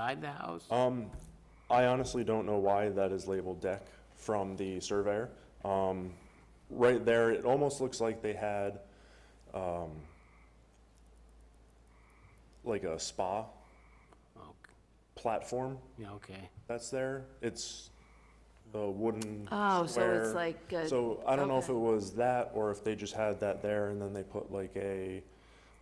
inside the house? Um, I honestly don't know why that is labeled deck from the surveyor. Um, right there, it almost looks like they had, um, like a spa Oh, platform Yeah, okay. that's there. It's the wooden Oh, so it's square. like, a- So I don't know if it okay. was that or if they just had that there and then they put like a,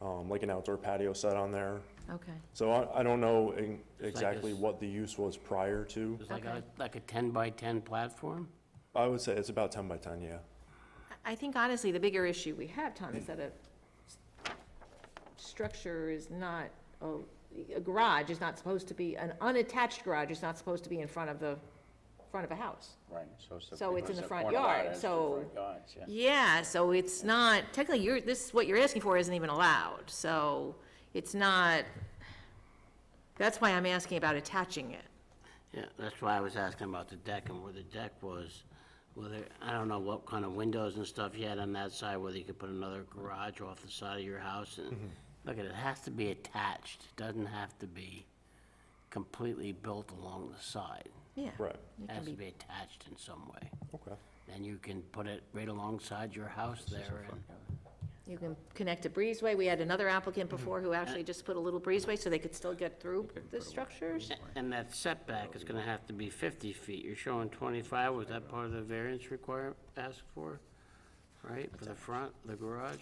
um, like an outdoor patio set on there. okay, So I, I don't know in- like exactly this. what the use was prior to. It's like a, Okay. like a 10 by 10 platform? I would say it's about ten by ten, yeah. I think honestly, the bigger issue we have, Tom, is that a s- structure is not, a a garage is not supposed to be, an unattached garage is not supposed to be in front of the, front of a house. Right, so it's the. So it's in the front corner lot, yard, it's the so- front yard, yeah. Yeah, so it's not, technically, you're, this, what you're asking for isn't even allowed, so it's not, that's why I'm asking about attaching it. Yeah, that's why I was asking about the deck and where the deck was. Whether, I don't know what kind of windows and stuff you had on that side, whether you could put another garage off the side of your house and, look, it has to be attached. It Doesn't have to be completely built along the side. Yeah. Right, It It can has to be, be attached in some way. okay. Then you can put it right alongside your house there and you can connect a breezeway. We had another applicant before who actually just put a little breezeway so they could still get through the structures. And that setback is gonna have to be fifty feet. You're showing twenty-five, was that part of the variance requirement asked for? Right, for the front, the garage,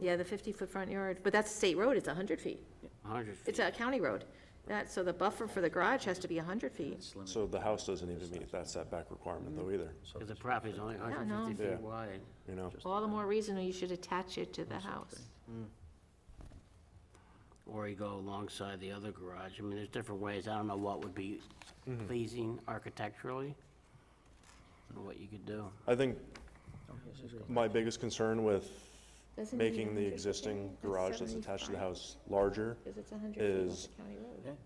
Yeah, the 50-foot front yard, but that's state road, it's 100 feet. hundred feet? It's a county road. That, so the buffer for the garage has to be 100 feet. So the house doesn't even meet that setback requirement though either, Because the property's only hundred no. fifty Yeah. feet wide. you know? All the more reason you should attach it to the house. Or you go alongside the other garage. I mean, there's different ways. I don't know what would be Mm-hmm. pleasing architecturally. and What you could do. I think my biggest concern with Doesn't it need making the 100 feet? existing That's garage that's attached to the 75. house larger, Because it's 100 feet off is- the county road,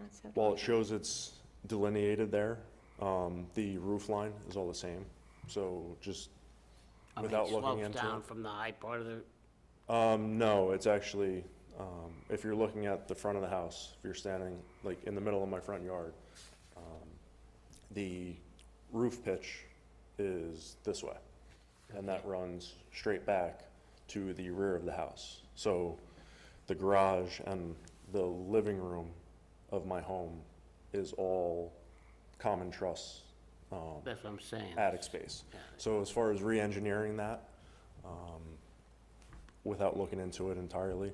not 70. while it shows it's delineated there, um, the roof line is all the same. So just, I mean, it Without looking Slopes into down it. from the high part of the, um, no, it's actually, um, if you're looking at the front of the house, if you're standing like in the middle of my front yard, um, the roof pitch is this way. and that runs straight back to the rear of the house. So the garage and the living room of my home is all common truss um, that's what I'm saying. attic space. So as far as re-engineering that, um, without looking into it entirely,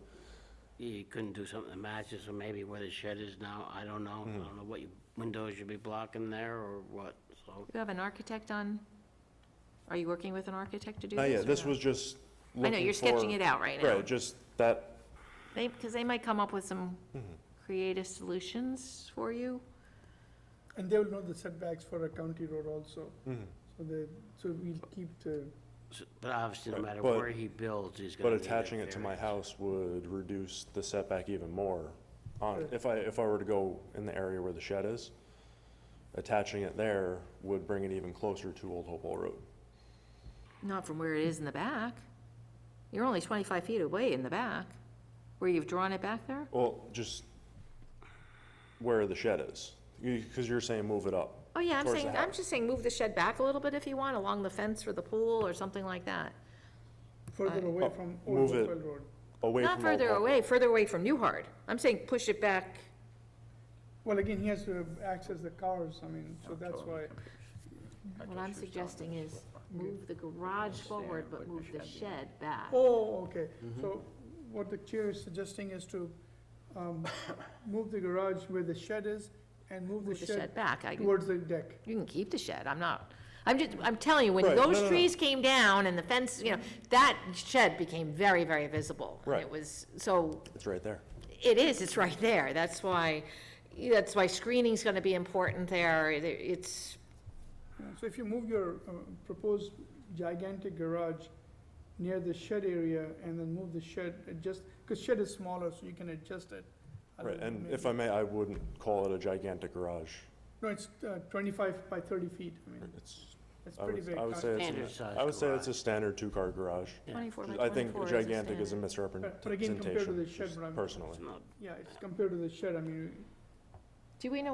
you couldn't do something that matches, or maybe where the shed is now, I don't know. I Hmm. don't know what you- windows you'd be blocking there or what, so. You have an architect on, are you working with an architect to do not this? yet, or this no? was just I know, looking you're sketching for- it out right now. Right, just that They, because they might come up with some Mm-hmm. creative solutions for you. And they will know the setbacks for a county road also. Mm-hmm. So they, so we'll keep the, so- But obviously, no Right, matter but- where he builds, he's gonna But need that attaching it to my variance. house would reduce the setback even more. On, if I, if I were to go in the area where the shed is, attaching it there would bring it even closer to Old Hopewell Road. Not from where it is in the back. You're only 25 feet away in the back, where you've drawn it back there? Well, just where the shed is, because you're saying move it up. Oh, yeah, I'm towards the saying, I'm house. just saying move the shed back a little bit if you want, along the fence or the pool or something like that. further away from Old Oh, move it. Hopewell Road. Away Not from Old further Hopewell. away, further away from Newhart. I'm saying push it back, Well, again, he has to access the cars, I mean, so that's why, what I'm suggesting is move the garage forward, but move the shed back. oh, okay. Mm-hmm. So what the chair is suggesting is to, um, move the garage where the shed is and move the Move the shed shed back. I- towards the deck. You can keep the shed, I'm not, I'm just, I'm telling you, when Right, no, no, those no. trees came down and the fence, you know, that shed became very, very visible. And It Right. was, so, It's right there. it is, it's right there, that's why, that's why screening's gonna be important there, It- it's, Yeah, So if you move your uh, proposed gigantic garage near the shed area and then move the shed, adjust, because shed is smaller, so you can adjust it. a Right, little and bit. if I may, I wouldn't call it a gigantic garage. No, it's uh, twenty-five by thirty feet, I Mm-hmm. mean, It's, it's I pretty would, big. Uh, I would say Standard it's, an- size I would say it's a garage. standard two-car garage. 24 by I think 24 is a gigantic is a standard. But- but again, compared to misrepresentation, the shed, just what I'm- personally. It's not- Yeah, it's compared to the shed, I mean, Do we know